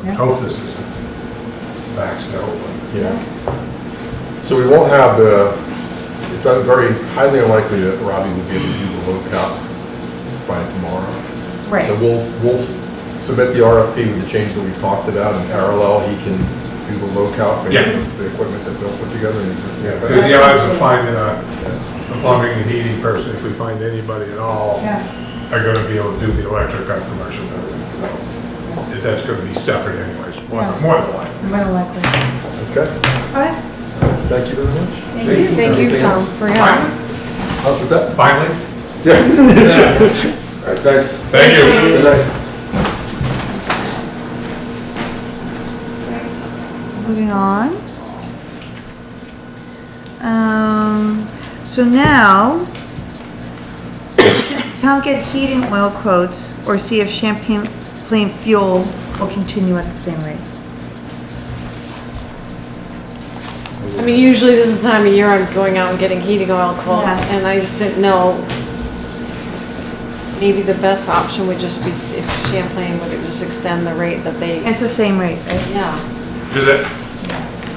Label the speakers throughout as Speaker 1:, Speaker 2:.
Speaker 1: I
Speaker 2: Yeah.
Speaker 1: hope this isn't maxed out,
Speaker 3: Yeah. So we won't have the, it's un- very highly unlikely that Robbie will be able to do the low cap by tomorrow. So
Speaker 2: Right,
Speaker 3: we'll, we'll submit the RFP with the change that we talked about in parallel. He can do the low cap based
Speaker 1: Yeah.
Speaker 3: on the equipment that Bill put together and existing.
Speaker 1: but,
Speaker 3: equipment.
Speaker 1: because the odds of finding uh, a a plumbing and heating person, if we find anybody at all,
Speaker 2: yeah,
Speaker 1: are gonna be able to do the electric on commercial buildings, so if that's gonna be separate anyways, more
Speaker 2: Yeah.
Speaker 1: than, more than likely.
Speaker 2: more than likely.
Speaker 3: Okay,
Speaker 2: All right,
Speaker 3: thank you very much.
Speaker 2: thank you.
Speaker 4: Thank you,
Speaker 3: Anything
Speaker 4: Tom,
Speaker 3: else?
Speaker 4: for your help.
Speaker 3: Oh, is that?
Speaker 1: Finally,
Speaker 3: Yeah. All right, thanks.
Speaker 1: thank you.
Speaker 3: Good night.
Speaker 2: Moving on. Um, so now, town get heating oil quotes or see if Champagne Plain Fuel will continue at the same rate.
Speaker 4: I mean, usually this is the time of year I'm going out and getting heating oil quotes,
Speaker 2: Yes.
Speaker 4: and I just didn't know. Maybe the best option would just be if Champlain would just extend the rate that they,
Speaker 2: It's the same rate, right?
Speaker 4: yeah.
Speaker 1: Is it,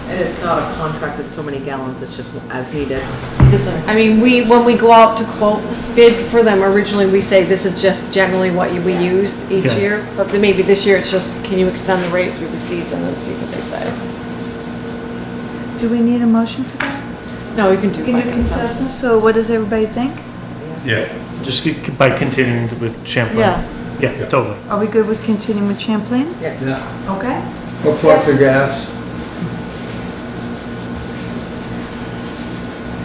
Speaker 5: And it's not a contract with so many gallons, it's just as needed.
Speaker 4: Because, I mean, we, when we go out to quote, bid for them, originally we say this is just generally what we use each
Speaker 6: Yeah.
Speaker 4: year, but then maybe this year it's just, can you extend the rate through the season and see what they say?
Speaker 2: Do we need a motion for that?
Speaker 4: No, you can do
Speaker 2: Can
Speaker 4: by
Speaker 2: you
Speaker 4: consensus.
Speaker 2: consensus, so what does everybody think?
Speaker 1: yeah,
Speaker 6: Just c- c- by continuing with Champlain.
Speaker 4: Yeah.
Speaker 6: Yeah, totally.
Speaker 2: Are we good with continuing with Champlain?
Speaker 5: Yes.
Speaker 7: Yeah,
Speaker 2: Okay.
Speaker 7: we'll plug the gas.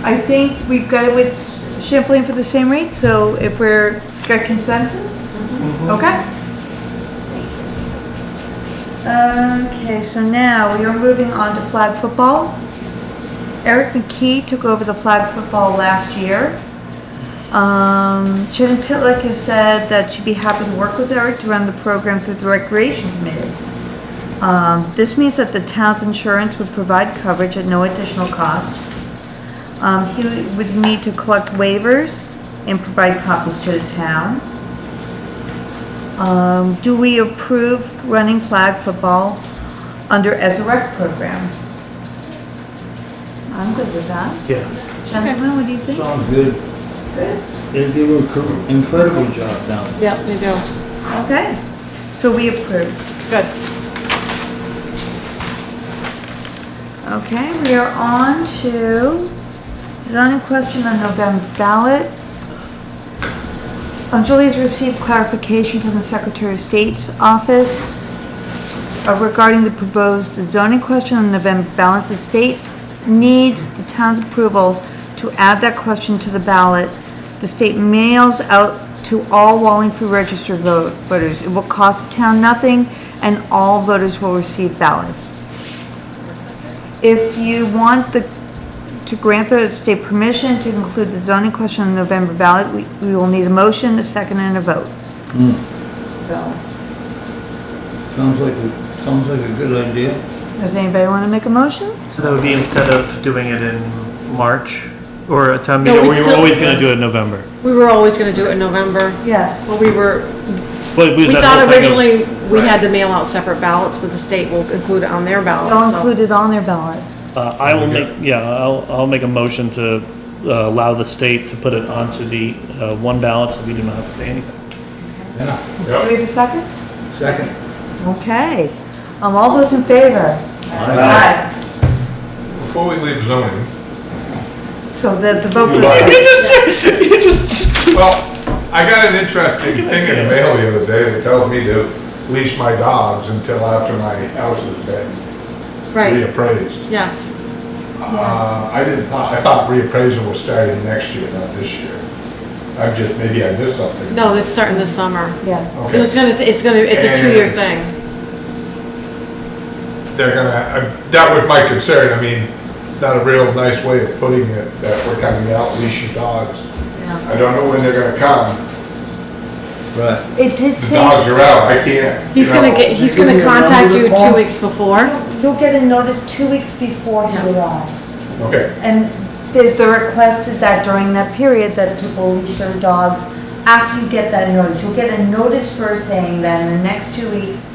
Speaker 2: I think we've got it with Champlain for the same rate, so if we're, got consensus?
Speaker 7: Mm-hmm.
Speaker 2: Okay. Okay, so now we are moving on to flag football. Eric McKee took over the flag football last year. Um, Jen Pitlick has said that she'd be happy to work with Eric to run the program through the recreation committee. Um, this means that the town's insurance would provide coverage at no additional cost. Um, he would need to collect waivers and provide copies to the town. Um, do we approve running flag football under as a rec program? I'm good with that.
Speaker 6: Yeah.
Speaker 2: Gentlemen, what do you think?
Speaker 7: Sounds good.
Speaker 2: Good.
Speaker 7: They do an incre- incredible job down there.
Speaker 4: Yeah, they do.
Speaker 2: Okay, so we approve.
Speaker 4: Good.
Speaker 2: Okay, we are on to zoning question on November ballot. Um, Julie's received clarification from the Secretary of State's office uh, regarding the proposed zoning question on November ballot. The state needs the town's approval to add that question to the ballot. The state mails out to all Wallingford registered vote- voters. It will cost the town nothing, and all voters will receive ballots. If you want the, to grant the state permission to include the zoning question on the November ballot, we, we will need a motion, a second, and a vote. So,
Speaker 7: Sounds like, a- sounds like a good idea.
Speaker 2: does anybody want to make a motion?
Speaker 6: So that would be instead of doing it in March or a town
Speaker 4: No,
Speaker 6: meeting,
Speaker 4: we'd
Speaker 6: we were
Speaker 4: still-
Speaker 6: always gonna do it in November.
Speaker 4: We were always gonna do it in November,
Speaker 2: Yes.
Speaker 4: but we were,
Speaker 6: But
Speaker 4: We
Speaker 6: was that
Speaker 4: thought
Speaker 6: whole thing of-
Speaker 4: originally we had to mail out separate ballots, but the state will include it on their ballot,
Speaker 2: They'll
Speaker 4: so-
Speaker 2: include it on their ballot.
Speaker 6: Uh, I will make, yeah, I'll, I'll make a motion to uh, allow the state to put it onto the uh, one ballot so we do not have to pay anything.
Speaker 7: Yeah,
Speaker 2: Do we
Speaker 1: yeah,
Speaker 2: have a second?
Speaker 7: second.
Speaker 2: Okay. Um, all those in favor? Aye.
Speaker 1: before we leave zoning,
Speaker 2: So the, the vote
Speaker 1: Aye.
Speaker 2: goes.
Speaker 6: You just,
Speaker 1: Well, I got an interesting thing in the mail the other day that tells me to leash my dogs until after my house has been
Speaker 4: Right,
Speaker 1: reappraised.
Speaker 4: yes.
Speaker 1: Uh, I didn't thought, I thought reappraisal was starting next year, not this year. I just, maybe I missed something.
Speaker 4: No, it's starting this summer.
Speaker 2: Yes.
Speaker 1: Okay.
Speaker 4: It's gonna, it's gonna, it's a two-year thing.
Speaker 1: They're gonna, I- that was my concern, I mean, not a real nice way of putting it, that we're coming out, leash your dogs.
Speaker 4: Yeah.
Speaker 1: I don't know when they're gonna come,
Speaker 7: Right.
Speaker 2: It did
Speaker 1: the
Speaker 2: say.
Speaker 1: dogs are out, I can't. you
Speaker 4: He's gonna
Speaker 1: know.
Speaker 4: get, he's
Speaker 7: Give
Speaker 4: gonna
Speaker 7: me a number
Speaker 4: contact
Speaker 7: to
Speaker 4: you two
Speaker 7: call.
Speaker 4: weeks before.
Speaker 2: You'll get a notice two weeks before he
Speaker 4: Yeah.
Speaker 2: arrives.
Speaker 1: Okay.
Speaker 2: And the, the request is that during that period that people leash their dogs after you get that notice. You'll get a notice first saying that in the next two weeks,